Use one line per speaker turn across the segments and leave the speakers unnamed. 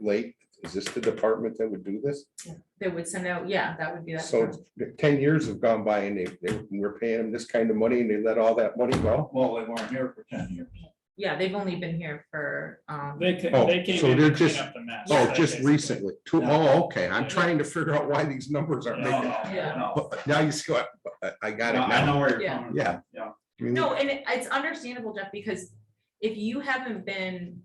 late, is this the department that would do this?
They would send out, yeah, that would be that.
So ten years have gone by and they, they, we're paying them this kind of money and they let all that money go?
Well, they weren't here for ten years.
Yeah, they've only been here for, um,
They came,
Oh,
they came
so
in
they're
to clean
just-
up the mess.
Oh,
That's
just
basically-
recently, two, oh, okay, I'm trying to figure out why these numbers
No,
aren't
no,
making,
Yeah.
no.
but now you see what, I- I got it
No, I
now.
know where you're
Yeah.
coming from.
Yeah.
Yeah.
I mean,
no, and it- it's understandable, Jeff, because if you haven't been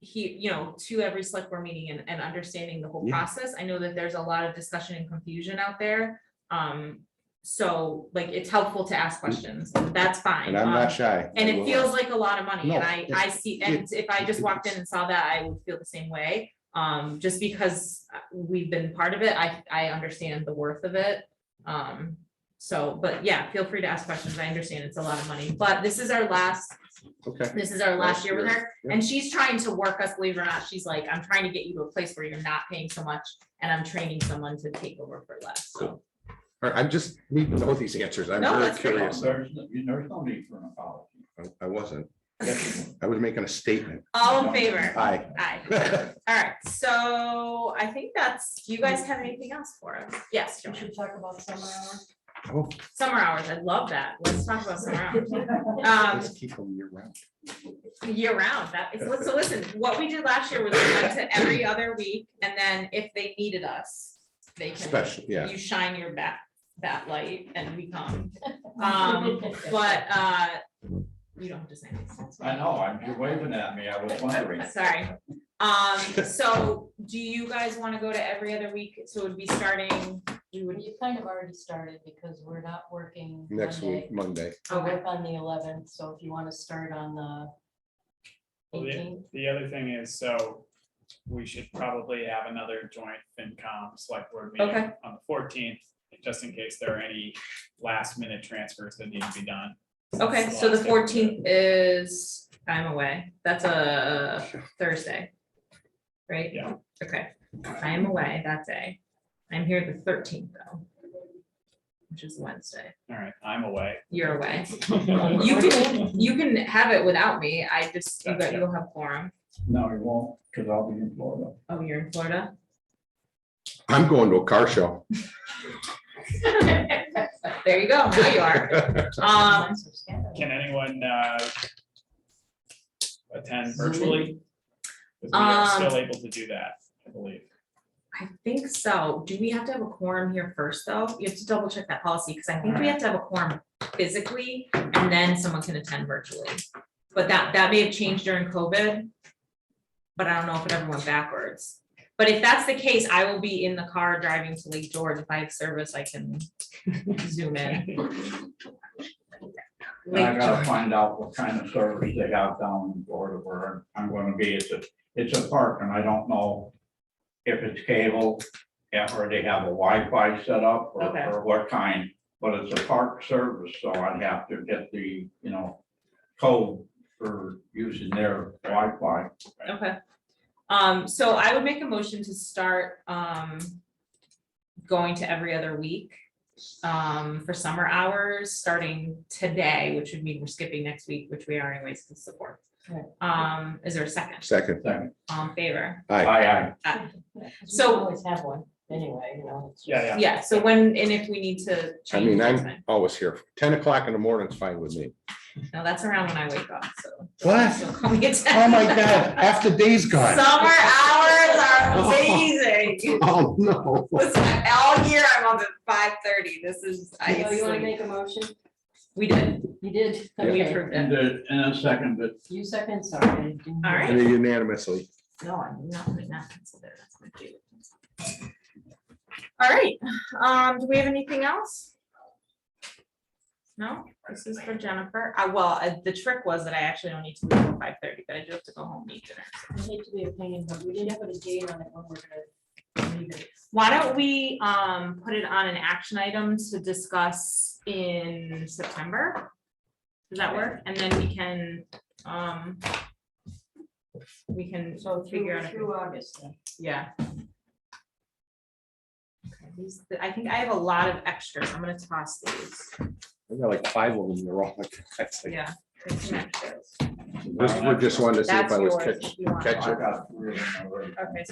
he, you know, to every select board meeting and, and understanding the whole
Yeah.
process, I know that there's a lot of discussion and confusion out there. Um, so like, it's helpful to ask questions, that's fine.
Mm. And I'm
Um,
not shy.
And
I will-
it feels like a lot of money,
No,
and I, I see, and if I just walked in and saw that, I would feel the same way. Um, just because uh, we've been part of it, I, I understand the worth of it. Um, so, but yeah, feel free to ask questions, I understand it's a lot of money, but this is our last,
Okay.
this is our last year with her.
Yeah.
And she's trying to work us, believe it or not, she's like, I'm trying to get you to a place where you're not paying so much, and I'm training someone to take over for less, so.
Cool. All right, I'm just needing to know these answers. I'm
No,
very
that's great.
curious. I
There's, no- there's no need for an apology.
I wasn't,
Yes, you
I was making a statement.
All in favor?
Aye.
Aye. All right, so I think that's, do you guys have anything else for us? Yes,
We
Joanne.
should talk about summer hours.
Oh,
summer hours, I love that. Let's talk about summer hours.
let's
Um,
keep them year round.
year round, that is, so listen, what we did last year was we went to every other week, and then if they needed us, they can,
Special, yeah.
you shine your bat, bat light and we come. Um, But, uh, you don't have to say this.
did. I know, I'm, you're waving at me, I was wondering.
Uh, Sorry. Um, so do you guys want to go to every other week? So it would be starting, we would,
You kind of already started because we're not working.
Next
Monday.
week, Monday.
We
Okay.
work on the eleventh, so if you want to start on the
Oh,
Well, yeah.
eighteenth,
The other thing is, so we should probably have another joint FinCom select board meeting
Okay.
on the fourteenth, just in case there are any last minute transfers that need to be done.
okay, so
Last
the
day of
fourteenth is, I'm away. That's a Thursday. Right?
Yeah.
Okay, I am away that day. I'm here the thirteenth though. Which is Wednesday.
All right, I'm away.
You're away. You can, you can have it without me. I just, you got, you'll have forum.
No, you won't, because I'll be in Florida.
Oh, you're in Florida?
I'm going to a car show.
There you go. Now you are. Um,
Can anyone uh, attend virtually? 'Cause We are
Um,
still able to do that, I believe.
I think so. Do we have to have a quorum here first, though? You have to double check that policy, because I think we have to have a quorum physically, and then someone can attend virtually. But that, that may have changed during COVID. But I don't know if it ever went backwards. But if that's the case, I will be in the car driving to Lake George. If I have service, I can zoom in.
And I
Lake
gotta
George.
find out what kind of service they have down in Florida where I'm gonna be. It's a, it's a park and I don't know if it's cable yeah, or they have a Wi-Fi set up or,
Okay.
or what kind, but it's a park service, so I'd have to get the, you know, code for using their Wi-Fi.
Okay. Um, so I would make a motion to start, um, going to every other week, um, for summer hours, starting today, which would mean we're skipping next week, which we are anyways to support.
Right.
Um, is there a second?
Second,
Second,
All in favor?
aye, aye.
So-
Always have one, anyway, you know. it's
Yeah,
just-
yeah.
Yeah, so when, and if we need to
I
change.
mean,
that's
I'm
fine.
always here. Ten o'clock in the morning's fine with me.
No, that's around when I wake up, so.
What?
So call me at 10.
Oh, my God, half the day's gone.
Summer hours are amazing.
Oh, no.
Listen, all year I'm up at five thirty. This is, I
Oh, you want to
sleep.
make a motion?
We did.
You did.
Yeah.
We
Okay.
approved
And
it.
the, and a second, but
You second, sorry.
All right.
And Unanimously.
No, I'm not putting that pencil there. That's my favorite. pencil. All right, um, do we have anything else? No, this is for Jennifer. Uh, well, uh, the trick was that I actually don't need to leave at five thirty, but I do have to go home and eat dinner.
I hate to be a pain, but we didn't put a date on it when we're gonna leave it.
Why don't we, um, put it on an action item to discuss in September? Does that work? And then we can, um, we can
So
figure
through,
out. if we-
through August then.
Yeah. Okay, these- I think I have a lot of extras. I'm gonna toss these.
I got like five of them. They're all like, that's like-
Yeah. take some extras.
This, we're just wanted to see if
That's
I was
yours
catch,
if you want.
catch
I got three of them already.
Okay,